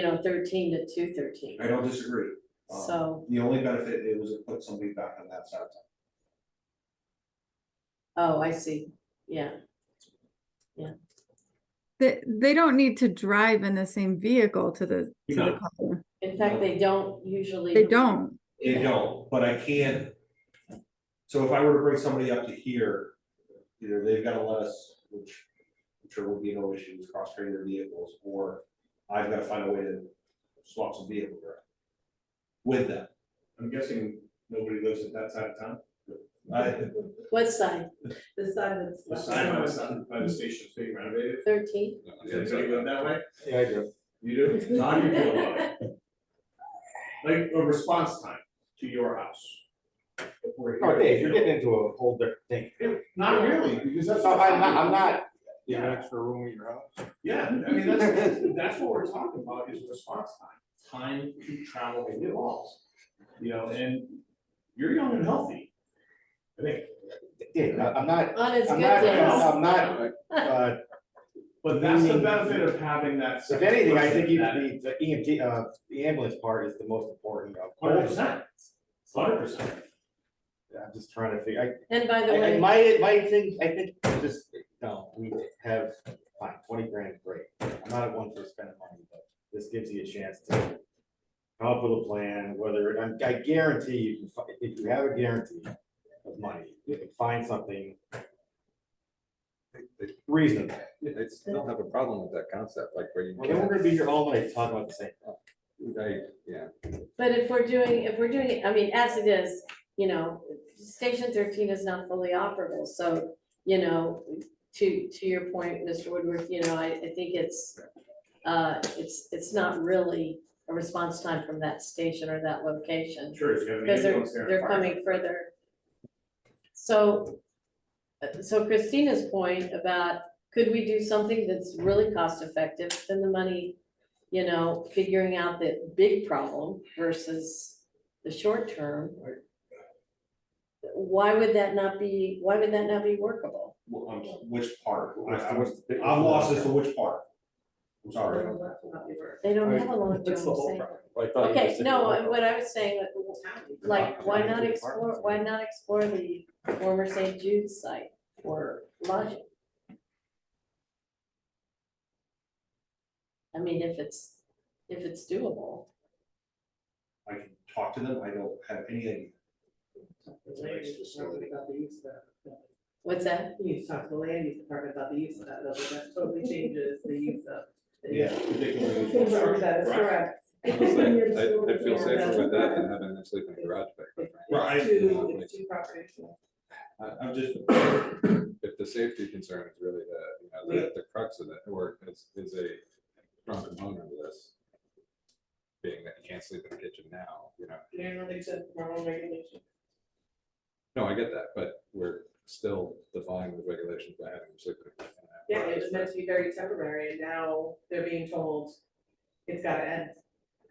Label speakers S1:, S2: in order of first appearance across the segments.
S1: you know, thirteen to two thirteen,
S2: I don't disagree. Um,
S1: so,
S2: The only benefit, it was to put somebody back on that side of town.
S1: oh, I see, yeah.
S3: They, they don't need to drive in the same vehicle to the, to
S2: No.
S3: the color.
S1: In fact, they don't usually.
S3: They don't.
S2: They don't, but I can. So if I were to bring somebody up to here, either they've gotta let us, which I'm sure will be no issues, cross train their vehicles, or I've gotta find a way to swap some vehicle around. With them,
S4: I'm guessing nobody lives at that side of town,
S2: I,
S1: What side?
S5: The side that's.
S4: the side by the side, by the station's being renovated,
S1: Thirteen?
S4: is anybody living that way?
S6: Yeah, I do.
S4: You do? How do you feel about it? Like, a response time to your house. If we're here.
S6: Oh, Dave, you're getting into a whole different thing.
S4: It- Not really, because that's.
S6: So I'm not, I'm not, you have
S4: Yeah.
S6: an extra room in your house.
S4: Yeah, I mean, that's, that's what we're talking about is response time, time to travel in the walls. You know, and you're young and healthy. I think,
S6: Dave, I- I'm not,
S1: On its good
S6: I'm not,
S1: days.
S6: I'm not, uh,
S4: but that's the benefit of having that.
S6: if anything, I think
S4: that-
S6: even the, the EMT, uh, the ambulance part is the most important. of all.
S4: Hundred percent, hundred percent.
S6: I'm just trying to figure, I,
S1: And by the
S6: I, I-
S1: way,
S6: my, my thing, I think, is just, no, we have, fine, twenty grand, great, I'm not one for spending money, but this gives you a chance to come up with a plan, whether, and I guarantee you, can fi- if you have a guarantee of money, you can find something reasonable,
S7: I still have a problem with that concept, like where you.
S6: Okay, we're gonna be here all night talking about the same, thing.
S7: I- Yeah,
S1: but if we're doing, if we're doing, it, I mean, as it is, you know, station thirteen is not fully operable, so, you know, to, to your point, Mr. Woodworth, you know, I, I think it's, uh, it's, it's not really a response time from that station or that location.
S4: Sure, if you have an
S1: Because they're,
S4: ambulance there.
S1: they're coming further. So, uh, so Christina's point about, could we do something that's really cost effective, spend the money, you know, figuring out the big problem versus the short term? Why would that not be, why would that not be workable?
S2: wh- um, which part, I,
S7: What's the-
S2: I'm,
S7: what's the big-
S2: I'm lost as to which part. I'm sorry.
S1: They don't
S6: Right.
S1: have a long term
S6: That's the whole
S1: say.
S6: I thought you
S1: Okay,
S6: just said-
S1: no, uh, what I was saying, like, why not explore, why not explore the former St. Jude's site for lodging? I mean, if it's, if it's doable,
S2: I can talk to them, I don't have any idea.
S5: The land use department about the use of that.
S1: what's that?
S5: You need to talk to the land use department about the use of that, though, that totally changes the use of. the-
S2: Yeah, particularly with
S5: That's
S2: construction.
S5: correct.
S7: I was like, I, I feel safer with that than having them sleep in a garage bag. quite frankly.
S2: Right.
S5: It's two, it's two properties.
S2: I, I'm just,
S7: If the safety concern is really the, you know, the, the crux of it, or is, is a strong component of this. Being that you can't sleep in the kitchen now, you know,
S5: They're not exempt from our own regulation.
S7: no, I get that, but we're still defying the regulations by having them sleep in a kitchen.
S5: Yeah, it was meant to be very temporary, and now they're being told it's gotta end.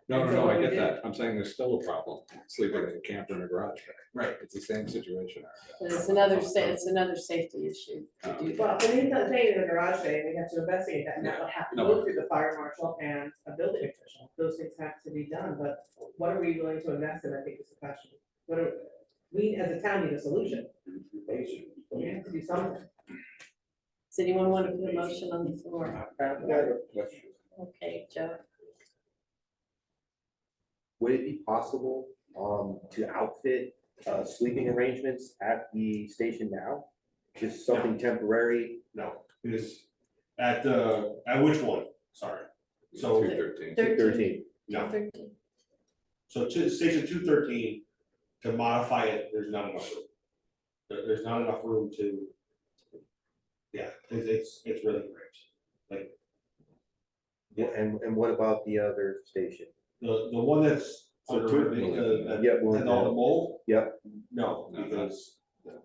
S7: No, no,
S5: And so
S7: no, I
S5: what
S7: get
S5: we
S7: that, I'm saying there's still a problem sleeping in a camper in a garage bag.
S2: Right.
S7: It's the same situation.
S1: And It's another, sa- it's another safety issue to
S7: Um,
S1: do
S5: Well,
S1: that.
S5: but he's not saying in the garage sale, we have to investigate that, and that would have to
S7: No.
S5: go through the fire marshal and a building official, those things have to be done, but what are we willing to invest in, I think is the question. What are, we as a town need a solution, we have to do something.
S1: Does anyone want to put a motion on the floor? Okay, Joe,
S8: Would it be possible um to outfit uh sleeping arrangements at the station now? Just something temporary,
S2: no, it is at the, at which one? Sorry. So-
S7: Two thirteen.
S1: thirteen,
S8: thirteen,
S2: No,
S1: thirteen,
S2: so to station two thirteen, to modify it, there's not enough room. There- there's not enough room to. Yeah, it's, it's, it's really great.
S8: Wha- and and what about the other station?
S2: The, the one that's.
S6: So
S2: under-
S6: two-
S2: the- the-
S8: Yeah, well,
S2: Has all the mold?
S8: Yep.
S2: No,
S7: No,
S2: because
S7: No,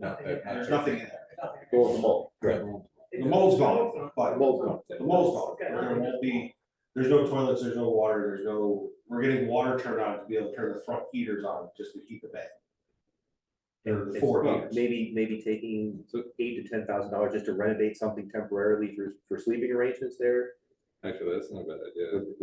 S7: that-
S2: there's nothing in there.
S8: Go with the mold.
S7: Right.
S2: The mold's gone, but
S8: The mold's gone.
S2: the mold's gone. There won't be, there's no toilets, there's no water, there's no, we're getting water turned on to be able to turn the front heaters on just to heat the bed. Or the four
S8: It's-
S2: heaters.
S8: Maybe maybe taking
S7: So-
S8: eight to ten thousand dollars just to renovate something temporarily for for sleeping arrangements there?
S7: Actually, that's not a bad idea.
S8: Would-